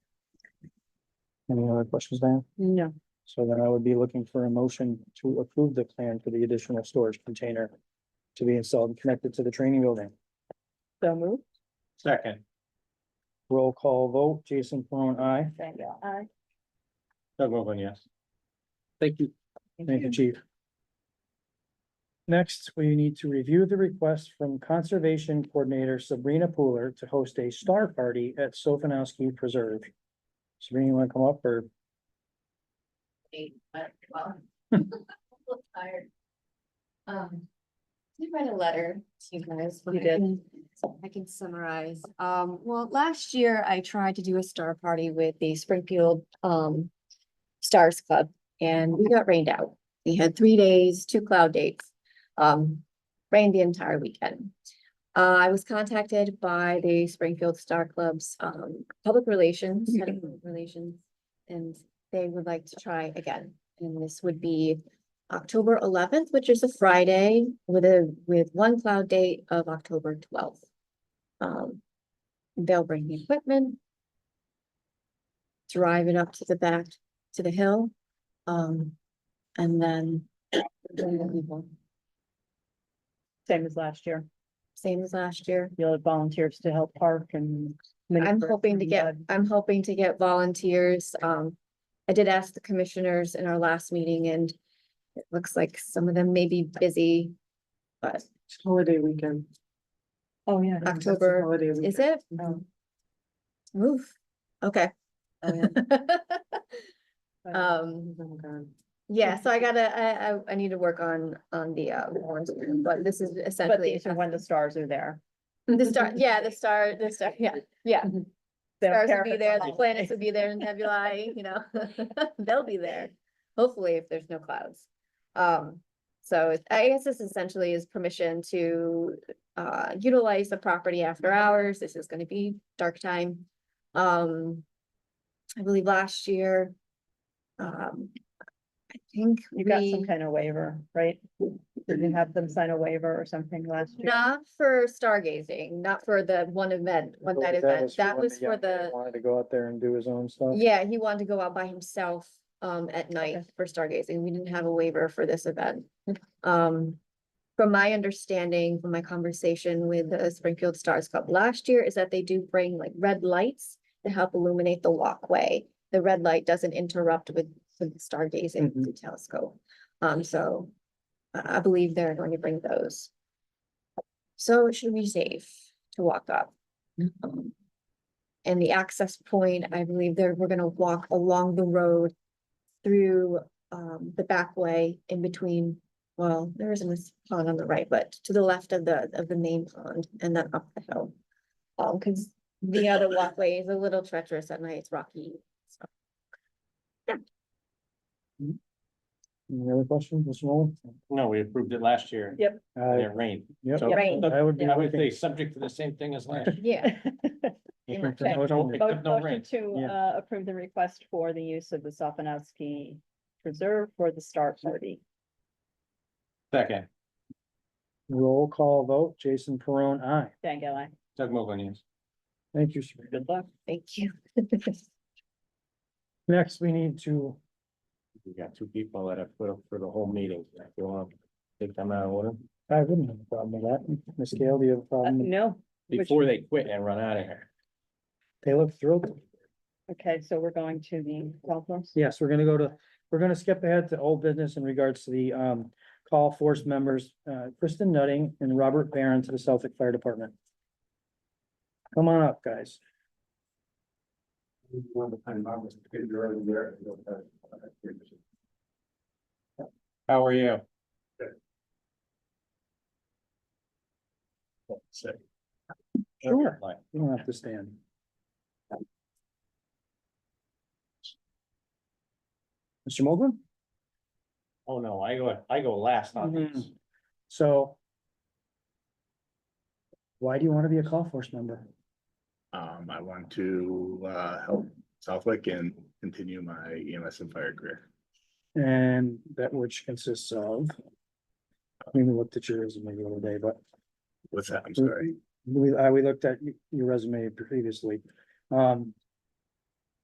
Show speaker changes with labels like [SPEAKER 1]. [SPEAKER 1] Any other questions, Dan?
[SPEAKER 2] No,
[SPEAKER 1] So then I would be looking for a motion to approve the plan for the additional storage container to be installed and connected to the training building.
[SPEAKER 2] so move.
[SPEAKER 3] Second,
[SPEAKER 1] Roll call vote, Jason Peron, I.
[SPEAKER 2] Thank you. Aye.
[SPEAKER 3] Doug Mogul, yes.
[SPEAKER 1] Thank you. Thank you, chief. Next, we need to review the request from Conservation Coordinator Sabrina Pooler to host a star party at Sofinowski Preserve. Sabrina, you wanna come up or?
[SPEAKER 4] eight, but, well. I'm tired. Um, I write a letter to you guys. but
[SPEAKER 2] You
[SPEAKER 4] I
[SPEAKER 2] did.
[SPEAKER 4] can- I can summarize. Um, well, last year I tried to do a star party with the Springfield, um, Stars Club and we got rained out. We had three days, two cloud dates, um, rained the entire weekend. Uh, I was contacted by the Springfield Star Club's, um, public relations,
[SPEAKER 2] Mm-hmm.
[SPEAKER 4] head of public relations. And they would like to try again. And this would be October eleventh, which is a Friday with a, with one cloud date of October twelfth. Um, they'll bring the equipment. Drive it up to the back, to the hill, um, and then bring the people.
[SPEAKER 2] Same as last year.
[SPEAKER 4] same as last year.
[SPEAKER 2] You'll have volunteers to help park and.
[SPEAKER 4] I'm hoping to get, I'm hoping to get volunteers. Um, I did ask the commissioners in our last meeting and it looks like some of them may be busy, but
[SPEAKER 2] Holiday weekend. Oh, yeah.
[SPEAKER 4] that's the October, is it?
[SPEAKER 2] Oh.
[SPEAKER 4] Move, okay. Oh, Um,
[SPEAKER 2] Oh
[SPEAKER 4] yeah, so I gotta, I, I, I need to work on, on the, uh, warrants, but this is
[SPEAKER 2] But
[SPEAKER 4] essentially.
[SPEAKER 2] these are when the stars are there.
[SPEAKER 4] The star, yeah, the star, the star, yeah, yeah.
[SPEAKER 2] They'll
[SPEAKER 4] Stars
[SPEAKER 2] care
[SPEAKER 4] will
[SPEAKER 2] if it's
[SPEAKER 4] be there,
[SPEAKER 2] a
[SPEAKER 4] the
[SPEAKER 2] holiday.
[SPEAKER 4] planets will be there in nebulae, you know, they'll be there, hopefully if there's no clouds. Um, so it- I guess this essentially is permission to uh utilize the property after hours, this is gonna be dark time. Um, I believe last year, um, I think
[SPEAKER 2] You got some
[SPEAKER 4] we,
[SPEAKER 2] kind of waiver, right? Did you have them sign a waiver or something last year?
[SPEAKER 4] not for stargazing, not for the one event, one night event,
[SPEAKER 1] for
[SPEAKER 4] that
[SPEAKER 1] when
[SPEAKER 4] was for
[SPEAKER 1] young man
[SPEAKER 4] the
[SPEAKER 1] Wanted to go out there and do his own stuff.
[SPEAKER 4] Yeah, he wanted to go out by himself um at night
[SPEAKER 2] Okay.
[SPEAKER 4] for stargazing. We didn't have a waiver for this event. Um, from my understanding, from my conversation with the Springfield Stars Club last year is that they do bring like red lights to help illuminate the walkway. The red light doesn't interrupt with with the stargazing
[SPEAKER 1] Mhm.
[SPEAKER 4] with the telescope. Um, so I I believe they're going to bring those. So it should be safe to walk up. Um, and the access point, I believe there, we're gonna walk along the road through um the back way in between, well, there isn't this pond on the right, but to the left of the of the main pond and then up the hill. Um, cause the other walkway is a little treacherous at night, it's rocky.
[SPEAKER 1] Any other questions, Mr. Nolan?
[SPEAKER 3] No, we approved it last year.
[SPEAKER 2] Yep.
[SPEAKER 1] Uh,
[SPEAKER 3] It rained.
[SPEAKER 1] yep.
[SPEAKER 3] So-
[SPEAKER 4] Rained.
[SPEAKER 2] uh,
[SPEAKER 1] I would be.
[SPEAKER 3] I would
[SPEAKER 1] looking-
[SPEAKER 3] say subject to the same thing as last.
[SPEAKER 4] Yeah,
[SPEAKER 3] year.
[SPEAKER 1] much.
[SPEAKER 3] Except no-
[SPEAKER 1] Okay.
[SPEAKER 3] except no
[SPEAKER 2] Motion
[SPEAKER 3] rain.
[SPEAKER 2] to
[SPEAKER 1] Yeah.
[SPEAKER 2] uh approve the request for the use of the Sofinowski Preserve for the Star Party.
[SPEAKER 3] Second,
[SPEAKER 1] Roll call vote, Jason Peron, I.
[SPEAKER 2] Thank you.
[SPEAKER 3] Doug Mogul, yes.
[SPEAKER 1] Thank you, Sabrina.
[SPEAKER 2] Good luck.
[SPEAKER 4] thank you.
[SPEAKER 1] Next, we need to,
[SPEAKER 3] We got two people that have put up for the whole meeting. If you want to take them out of order,
[SPEAKER 1] I wouldn't have a problem with that. Ms. Gale, do you have a
[SPEAKER 2] Uh,
[SPEAKER 1] problem?
[SPEAKER 2] No, Which-
[SPEAKER 3] before they quit and run out of here.
[SPEAKER 1] They look thrilled.
[SPEAKER 2] okay, so we're going to the golf course.
[SPEAKER 1] Yes, we're gonna go to, we're gonna skip ahead to old business in regards to the um call force members, uh Kristen Nutting and Robert Barron to the Celtic Fire Department. Come on up, guys.
[SPEAKER 3] How are you?
[SPEAKER 1] Sure. You don't have to stand. Mr. Mogul?
[SPEAKER 3] Oh, no, I go, I go last on this.
[SPEAKER 1] So why do you want to be a call force member?
[SPEAKER 5] Um, I want to uh help Southwick and continue my EMS and fire career.
[SPEAKER 1] And that which consists of I mean, we looked at your resume the other day, but Mm-hmm.
[SPEAKER 5] What's that? I'm sorry.
[SPEAKER 1] We, I, we looked at y- your resume previously. Um,